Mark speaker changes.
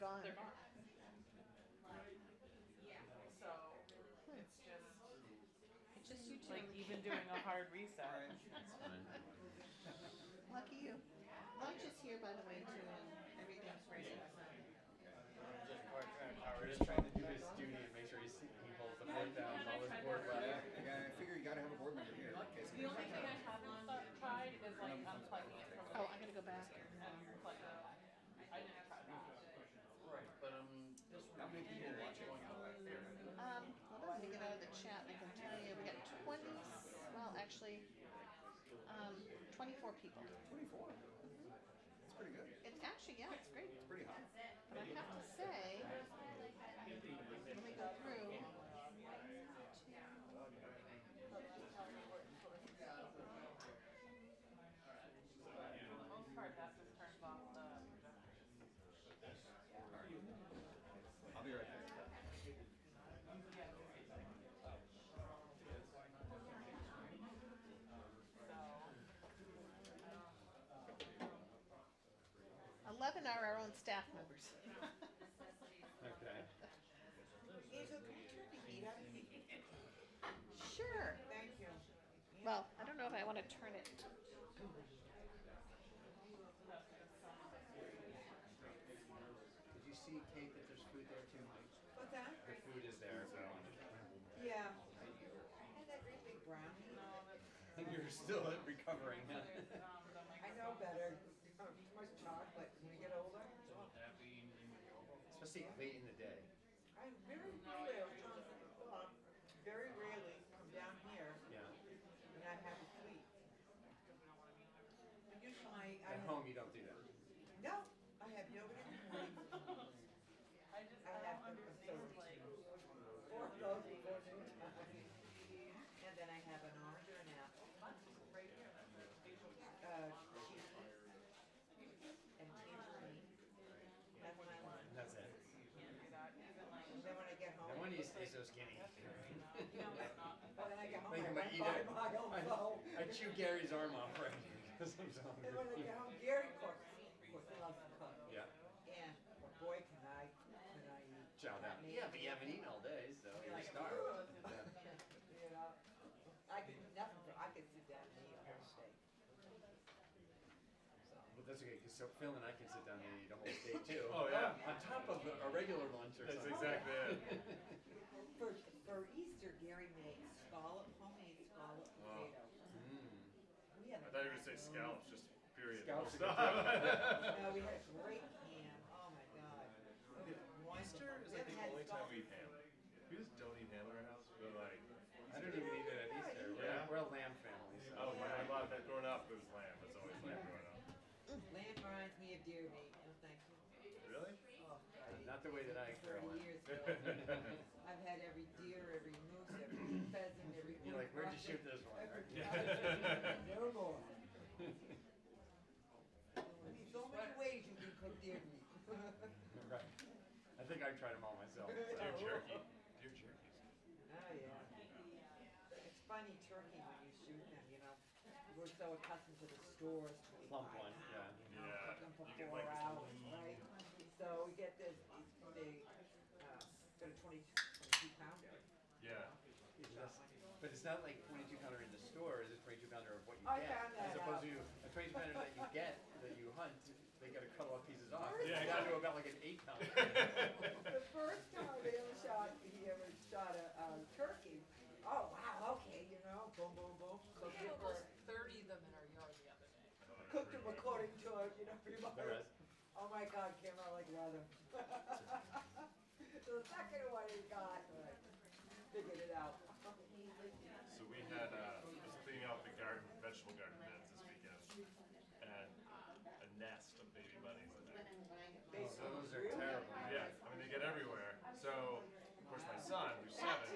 Speaker 1: gone.
Speaker 2: they're gone. So it's just
Speaker 1: Just you two.
Speaker 2: like even doing a hard reset.
Speaker 3: It's fine.
Speaker 1: Lucky you. Lunch is here, by the way, too, and everything's ready.
Speaker 4: We're just trying to do his duty and make sure he's, he holds the board down, while his board
Speaker 5: Yeah, I
Speaker 4: left.
Speaker 5: gotta- I figure you gotta have a board member here. in case
Speaker 2: The only
Speaker 5: anything
Speaker 2: thing I
Speaker 5: happens.
Speaker 2: haven't stu- tried is like unplugging it
Speaker 1: Oh,
Speaker 2: from.
Speaker 1: I'm gonna go back.
Speaker 2: And plugging it back. I didn't try that.
Speaker 3: Right, but um, this
Speaker 5: How many people watch it on your left there?
Speaker 1: Um, well, let me get out of the chat. I can tell you, we got twenty, well, actually, um, twenty-four people.
Speaker 5: Twenty-four. That's pretty good.
Speaker 1: It's actually, yeah, it's great.
Speaker 5: It's pretty hot.
Speaker 1: But I have to say, let me go through.
Speaker 2: For the most part, that's just turned off the projector.
Speaker 5: I'll be right back.
Speaker 1: Eleven are our own staff members.
Speaker 4: Okay.
Speaker 6: Angel, can you turn the heat up?
Speaker 1: Sure.
Speaker 6: Thank you.
Speaker 1: Well, I don't know if I want to turn it.
Speaker 5: Did you see, Kate, that there's food there too, Mike?
Speaker 6: What's that?
Speaker 4: The food is there, so.
Speaker 6: Yeah. I had that great big brownie.
Speaker 4: You're still recovering.
Speaker 6: I know better. Oh, too much chocolate when we get older.
Speaker 5: Especially late in the day.
Speaker 6: I very rarely, I was telling someone before, very rarely come down here
Speaker 4: Yeah.
Speaker 6: and not have a sweet. But usually my, I
Speaker 4: At
Speaker 6: have,
Speaker 4: home, you don't do that.
Speaker 6: no, I have yogurt in the morning,
Speaker 2: I just, I
Speaker 6: I
Speaker 2: don't
Speaker 6: have to
Speaker 2: understand,
Speaker 6: observe.
Speaker 2: like,
Speaker 6: four of those before noon time. And then I have an orange or an apple.
Speaker 2: right here, that's it.
Speaker 6: uh, cheese and tangerine. That's my
Speaker 4: And
Speaker 6: lunch.
Speaker 4: that's it.
Speaker 2: Can't do that, even like,
Speaker 6: And then when I get home.
Speaker 4: No wonder you say so skinny.
Speaker 2: you know, it's not.
Speaker 6: Well, then I get home,
Speaker 4: Like,
Speaker 6: I
Speaker 4: I'm
Speaker 6: run
Speaker 4: gonna eat
Speaker 6: by
Speaker 4: it.
Speaker 6: my own phone.
Speaker 4: I, I chew Gary's arm off right here because I'm so
Speaker 6: And when I
Speaker 4: hungry.
Speaker 6: get home, Gary cooks, of course, he loves to cook.
Speaker 4: Yeah.
Speaker 6: And, well, boy, can I, can I eat.
Speaker 4: Chow down. Yeah, but you haven't eaten all day, so you're starved. Yeah.
Speaker 6: You know, I could do nothing, but I could sit down and eat all day.
Speaker 4: But that's okay, because so Phil and I can sit down and eat a whole day too.
Speaker 3: Oh, yeah.
Speaker 4: On top of a a regular lunch or
Speaker 3: That's
Speaker 4: something.
Speaker 3: exactly it.
Speaker 6: For, for Easter, Gary made scallop, homemade scallop potato.
Speaker 4: Mm.
Speaker 6: We had a
Speaker 3: I thought you were gonna say
Speaker 6: macaroni.
Speaker 3: scallops, just period.
Speaker 4: Scallops
Speaker 3: Full
Speaker 4: are
Speaker 3: stop.
Speaker 6: No, we had a great ham. Oh my god. It was wonderful.
Speaker 3: Easter is
Speaker 6: We
Speaker 3: like
Speaker 6: haven't
Speaker 3: the
Speaker 6: had
Speaker 3: only time
Speaker 6: scallop-
Speaker 3: we eat ham. We just don't eat ham at our house, but like,
Speaker 4: I don't even eat it at Easter. We're,
Speaker 3: Yeah.
Speaker 4: we're a lamb family, so.
Speaker 3: oh, when I love that growing up, it was lamb. It's always lamb growing up.
Speaker 6: Lamb reminds me of deer meat. No, thank you.
Speaker 3: Really?
Speaker 6: Oh, God.
Speaker 4: Not the way that I
Speaker 6: Thirty
Speaker 4: grow up.
Speaker 6: years ago, I've had every deer, every moose, every pheasant, every.
Speaker 4: You're like, where'd you shoot this one?
Speaker 6: Every-
Speaker 3: Yeah.
Speaker 6: No more. There's so many ways you can cook deer meat.
Speaker 4: Right. I think I tried them all myself.
Speaker 3: Deer
Speaker 4: so.
Speaker 3: jerky. Deer jerky's
Speaker 6: Oh, yeah. It's funny turkey when you shoot them, you know. We're so accustomed to the stores.
Speaker 4: Plump one, yeah.
Speaker 3: Yeah,
Speaker 6: Cook them for
Speaker 3: you get
Speaker 6: four
Speaker 3: like this
Speaker 6: hours, right? So we get this, big, uh, got a 20 22 pounder.
Speaker 3: Yeah.
Speaker 4: It's just- But it's not like 22 pounder in the store. It's a 22 pounder of what you
Speaker 6: I
Speaker 4: get,
Speaker 6: found that
Speaker 4: as opposed
Speaker 6: out.
Speaker 4: to a 22 pounder that you get that you hunt. They got to cut all pieces off.
Speaker 3: Yeah,
Speaker 4: it's down to
Speaker 3: exactly.
Speaker 4: about like an eight pounder.
Speaker 6: The first time they ever shot, he ever shot a, um, turkey, oh, wow, okay, you know, boom, boom, boom. Cooked it for,
Speaker 2: thirty of them in our yard the other day.
Speaker 6: cooked it according to, uh, you know, remote.
Speaker 4: the rest.
Speaker 6: Oh my God, came out like leather. The second one he got, but figured it out.
Speaker 3: So we had uh, was cleaning out the garden, vegetable garden beds this weekend, and a nest of baby bunnies in there.
Speaker 6: They-
Speaker 3: So